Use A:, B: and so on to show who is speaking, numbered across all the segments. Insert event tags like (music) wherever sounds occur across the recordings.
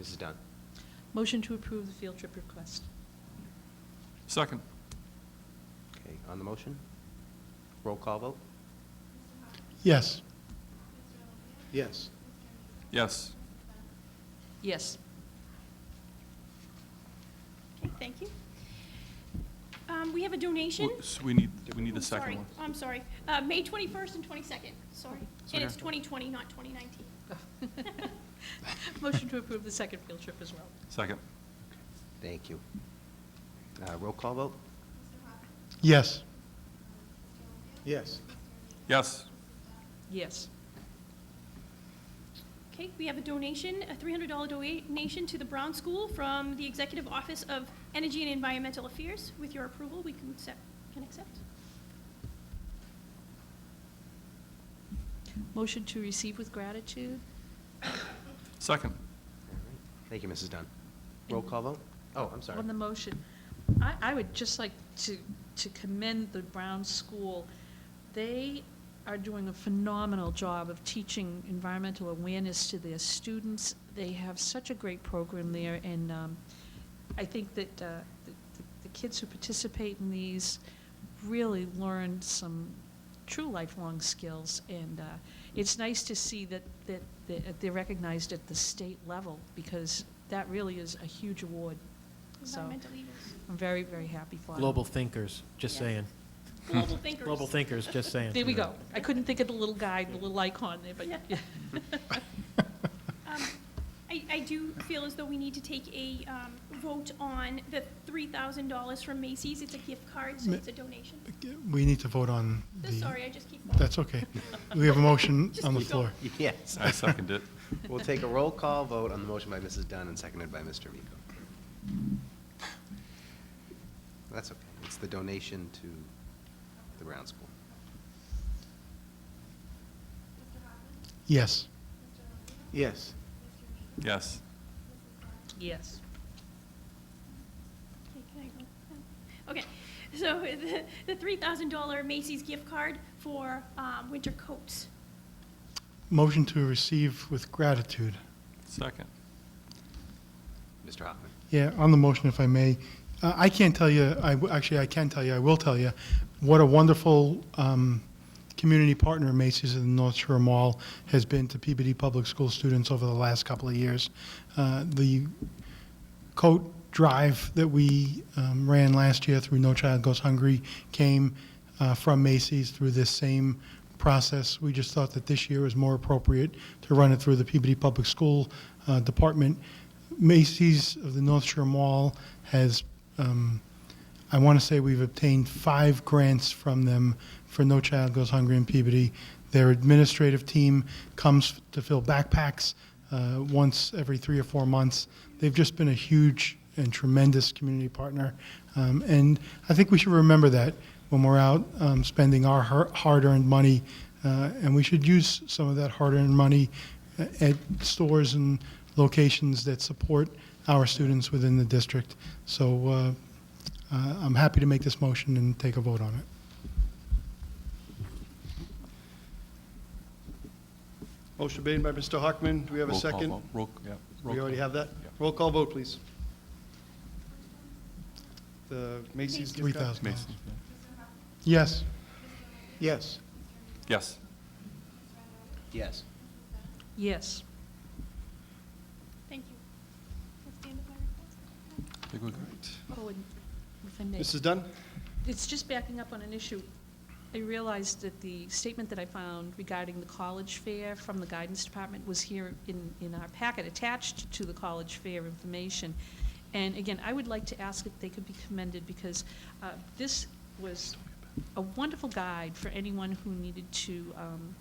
A: Mrs. Dunn.
B: Motion to approve the field trip request.
C: Second.
A: Okay, on the motion? Roll call vote?
D: Yes.
E: Yes.
C: Yes.
B: Yes.
F: Okay, thank you. Um, We have a donation.
C: Well, so We need, we need
F: Oh,
C: the second
F: sorry.
C: one.
F: I'm sorry. Uh, May 21st and 22nd, sorry.
C: It's
F: And
C: okay.
F: it's 2020, not 2019.
B: (laughs) Motion to approve the second field trip as well.
C: Second.
A: Thank you. Uh, Roll call vote?
D: Yes.
E: Yes.
C: Yes.
B: Yes.
F: Okay, we have a donation, a $300 donation to the Brown School from the Executive Office of Energy and Environmental Affairs. With your approval, we can accept, can accept.
B: Motion to receive with gratitude.
C: Second.
A: All right. Thank you, Mrs. Dunn. Roll call vote? Oh, I'm sorry.
B: On the motion, I, I would just like to, to commend the Brown School. They are doing a phenomenal job of teaching environmental awareness to their students. They have such a great program there, and um, I think that uh, the the kids who participate in these really learn some true lifelong skills, and uh, it's nice to see that, that that they're recognized at the state level, because that really is a huge award. So,
F: Environmental leaders,
G: (laughs)
B: I'm very, very happy for them.
G: Global thinkers, just
F: Yes.
G: saying.
F: global thinkers.
G: Global thinkers,
B: (laughs)
G: just saying.
B: There we go. I couldn't think of the little guy, the little icon there, but,
F: Yeah. Um, I, I do feel as though we need to take a um, vote on the three thousand dollars from Macy's. It's a gift card, so
D: Ma-
F: it's a donation.
D: (laughs) We need to vote on
F: So
D: the...
F: Sorry, I just keep.
D: That's okay. We have a
F: (laughs)
D: motion
F: Just
D: on the
F: keep going.
D: floor.
A: Yes.
C: I second it.
A: We'll take a roll call vote on the motion by Mrs. Dunn and seconded by Mr. Miko. That's okay. It's the donation to the Brown School.
D: Yes.
E: Yes.
C: Yes.
B: yes.
F: Okay, can I go? Oh. Okay, so (laughs) the, the three thousand dollar Macy's gift card for um, winter coats.
D: Motion to receive with gratitude.
C: Second.
A: Mr. Hoffman.
D: Yeah, on the motion, if I may, uh, I can't tell you, I, w- actually, I can tell you, I will tell you, what a wonderful um, community partner Macy's and North Shore Mall has been to Peabody Public School students over the last couple of years. Uh, The coat drive that we um, ran last year through No Child Goes Hungry came uh, from Macy's through this same process. We just thought that this year was more appropriate to run it through the Peabody Public School uh, Department. Macy's of the North Shore Mall has, um, I want to say we've obtained five grants from them for No Child Goes Hungry in Peabody. Their administrative team comes to fill backpacks uh, once every three or four months. They've just been a huge and tremendous community partner. Um, and I think we should remember that when we're out um, spending our har- hard earned money. Uh, and we should use some of that hard earned money uh, at stores and locations that support our students within the district. So uh, uh, I'm happy to make this motion and take a vote on it.
E: Motion made by Mr. Hockman. Do we have a
C: Roll call
E: second?
C: vote. Roll, yeah. roll
E: We already
C: call.
E: have that?
C: Yeah.
E: Roll call vote, please. The Macy's gift card?
D: $3,000.
C: Mason, yeah.
D: Yes.
E: Yes.
C: Yes.
A: Yes.
B: Yes.
F: Thank you. That's the end of my report.
C: I think we're good.
B: Oh, and if I may.
E: Mrs. Dunn?
B: It's just backing up on an issue. I realized that the statement that I found regarding the college fair from the guidance department was here in, in our packet attached to the college fair information. And again, I would like to ask if they could be commended because uh, this was a wonderful guide for anyone who needed to um,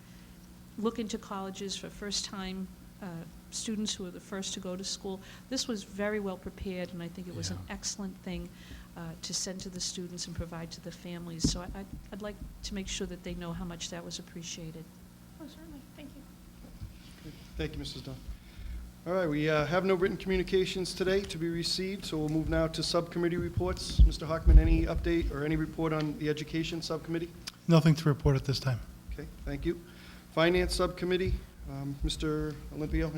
B: look into colleges for first-time uh, students who are the first to go to school. This was very well prepared, and I think it was an
C: Yeah.
B: excellent thing uh, to send to the students and provide to the families. So I- I'd I'd like to make sure that they know how much that was appreciated.
F: Oh, certainly, thank you.
E: Thank you, Mrs. Dunn. All right, we uh, have no written communications today to be received, so we'll move now to subcommittee reports. Mr. Hockman, any update or any report on the education subcommittee?
D: Nothing to report at this time.
E: Okay, thank you. Finance Subcommittee, um, Mr. Olympio,